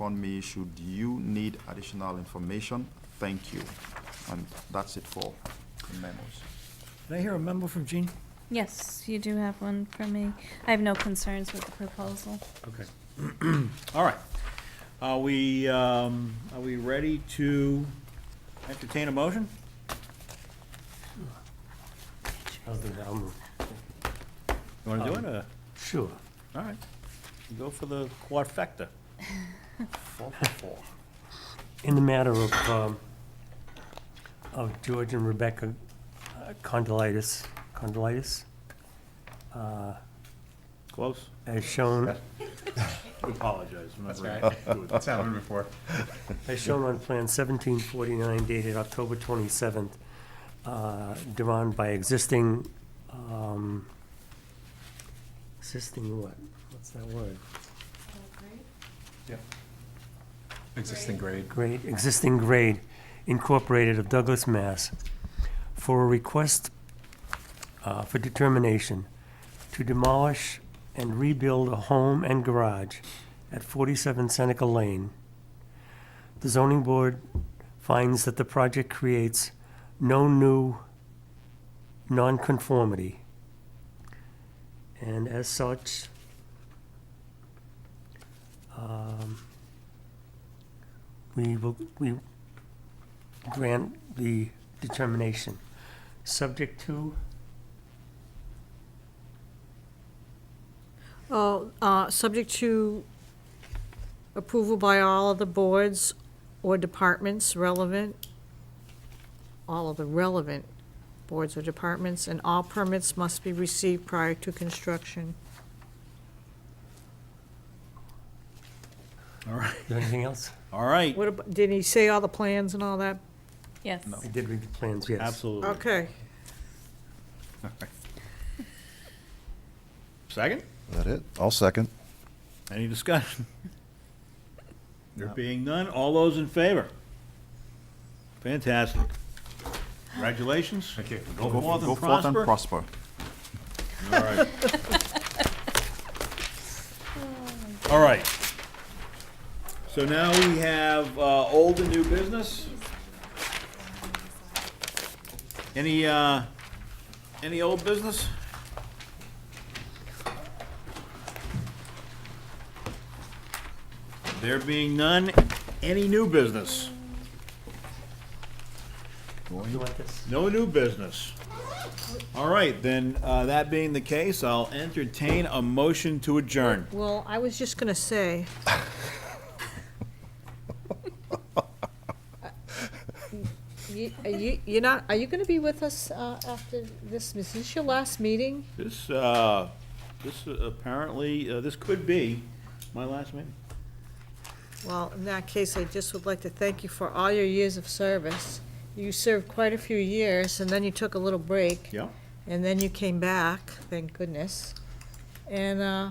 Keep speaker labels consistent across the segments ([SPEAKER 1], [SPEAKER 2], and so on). [SPEAKER 1] on me should you need additional information. Thank you. And that's it for memos.
[SPEAKER 2] Did I hear a memo from Jean?
[SPEAKER 3] Yes, you do have one for me. I have no concerns with the proposal.
[SPEAKER 4] Okay. All right. Are we, um, are we ready to entertain a motion?
[SPEAKER 5] I'll do that, I'll move.
[SPEAKER 4] You want to do it? or-
[SPEAKER 5] Sure.
[SPEAKER 4] Uh, All right. Go for the quadfecta.
[SPEAKER 1] Four for four.
[SPEAKER 5] In the matter of, um, of George and Rebecca uh, Condolitis, Condolitis, uh,
[SPEAKER 4] Close?
[SPEAKER 5] as shown,
[SPEAKER 4] We apologize. We're not
[SPEAKER 6] That's
[SPEAKER 4] ready
[SPEAKER 6] right.
[SPEAKER 4] to do it.
[SPEAKER 6] That's happened before.
[SPEAKER 5] as shown on plan seventeen forty-nine dated October twenty-seventh, uh, drawn by existing, um, existing what? What's that word?
[SPEAKER 6] Existing grade.
[SPEAKER 5] grade, existing grade incorporated of Douglas, Mass. for a request uh, for determination to demolish and rebuild a home and garage at 47 Seneca Lane. The zoning board finds that the project creates no new nonconformity. And as such, um, we will, we grant the determination, subject to,
[SPEAKER 7] Oh, uh, subject to approval by all of the boards or departments relevant, all of the relevant boards or departments, and all permits must be received prior to construction.
[SPEAKER 4] All right.
[SPEAKER 5] is there anything else?
[SPEAKER 4] All right.
[SPEAKER 7] What, ab- did he say all the plans and all that?
[SPEAKER 3] Yes.
[SPEAKER 5] I did read the plans, yes.
[SPEAKER 4] Absolutely.
[SPEAKER 7] Okay.
[SPEAKER 4] Second?
[SPEAKER 8] That it? I'll second.
[SPEAKER 4] Any discussion? There being none, all those in favor? Fantastic. Congratulations. Thank you. Go forth
[SPEAKER 1] Go
[SPEAKER 4] and
[SPEAKER 1] forth and prosper.
[SPEAKER 4] prosper. All right. All right. So now we have uh, old and new business. Any, uh, any old business? There being none, any new business?
[SPEAKER 5] You want this?
[SPEAKER 4] No new business. All right, then, uh, that being the case, I'll entertain a motion to adjourn.
[SPEAKER 7] Well, I was just gonna say. You, are you, you're not, are you gonna be with us, uh, after this, is this your last meeting?
[SPEAKER 4] This, uh, this apparently, uh, this could be my last meeting.
[SPEAKER 7] Well, in that case, I just would like to thank you for all your years of service. You served quite a few years, and then you took a little break,
[SPEAKER 4] Yeah.
[SPEAKER 7] and then you came back, thank goodness. And uh,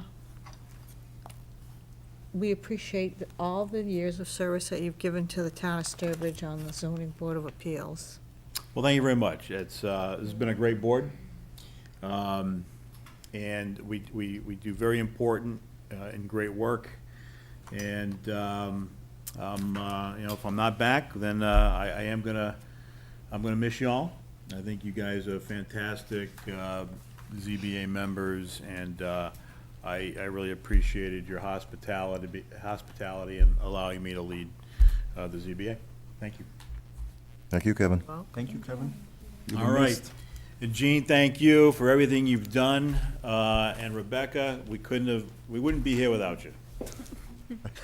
[SPEAKER 7] we appreciate the- all the years of service that you've given to the town of Sturbridge on the zoning board of appeals.
[SPEAKER 4] Well, thank you very much. It's, uh, this has been a great board. Um, and we, we, we do very important, uh, and great work. And, um, um, uh, you know, if I'm not back, then, uh, I, I am gonna, I'm gonna miss y'all. I think you guys are fantastic, uh, ZBA members, and, uh, I, I really appreciated your hospitality, hospitality and allowing me to lead, uh, the ZBA. Thank you.
[SPEAKER 8] Thank you, Kevin.
[SPEAKER 1] Thank you, Kevin. You'll be
[SPEAKER 4] All right.
[SPEAKER 1] missed.
[SPEAKER 4] And Gene, thank you for everything you've done. Uh, And Rebecca, we couldn't have, we wouldn't be here without you.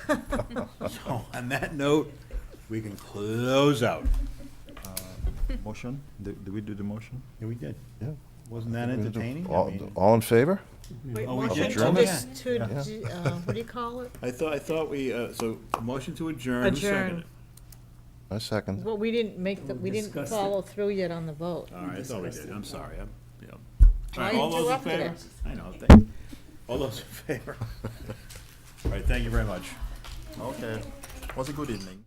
[SPEAKER 4] So on that note, we can close out.
[SPEAKER 1] Motion? Did did we do the motion?
[SPEAKER 4] Yeah, we did.
[SPEAKER 8] Yeah.
[SPEAKER 4] Wasn't that entertaining? I
[SPEAKER 8] All,
[SPEAKER 4] mean,
[SPEAKER 8] all in favor?
[SPEAKER 7] Wait,
[SPEAKER 4] Oh, we
[SPEAKER 7] motion
[SPEAKER 4] did?
[SPEAKER 7] to
[SPEAKER 4] Okay.
[SPEAKER 7] dis- to, uh, what do you call it?
[SPEAKER 4] I thought, I thought we, uh, so motion to adjourn. Who seconded it?
[SPEAKER 7] Adjourn.
[SPEAKER 8] I second.
[SPEAKER 7] Well, we didn't make, the we didn't
[SPEAKER 5] Discussed it.
[SPEAKER 7] follow through yet on the vote.
[SPEAKER 4] All right, I thought we did. I'm sorry. I'm, yeah. All right,
[SPEAKER 7] I
[SPEAKER 4] all those in
[SPEAKER 7] interrupted
[SPEAKER 4] favor?
[SPEAKER 7] it.
[SPEAKER 4] I know. thank- All those in favor? All right, thank you very much.
[SPEAKER 1] Okay. Was a good evening.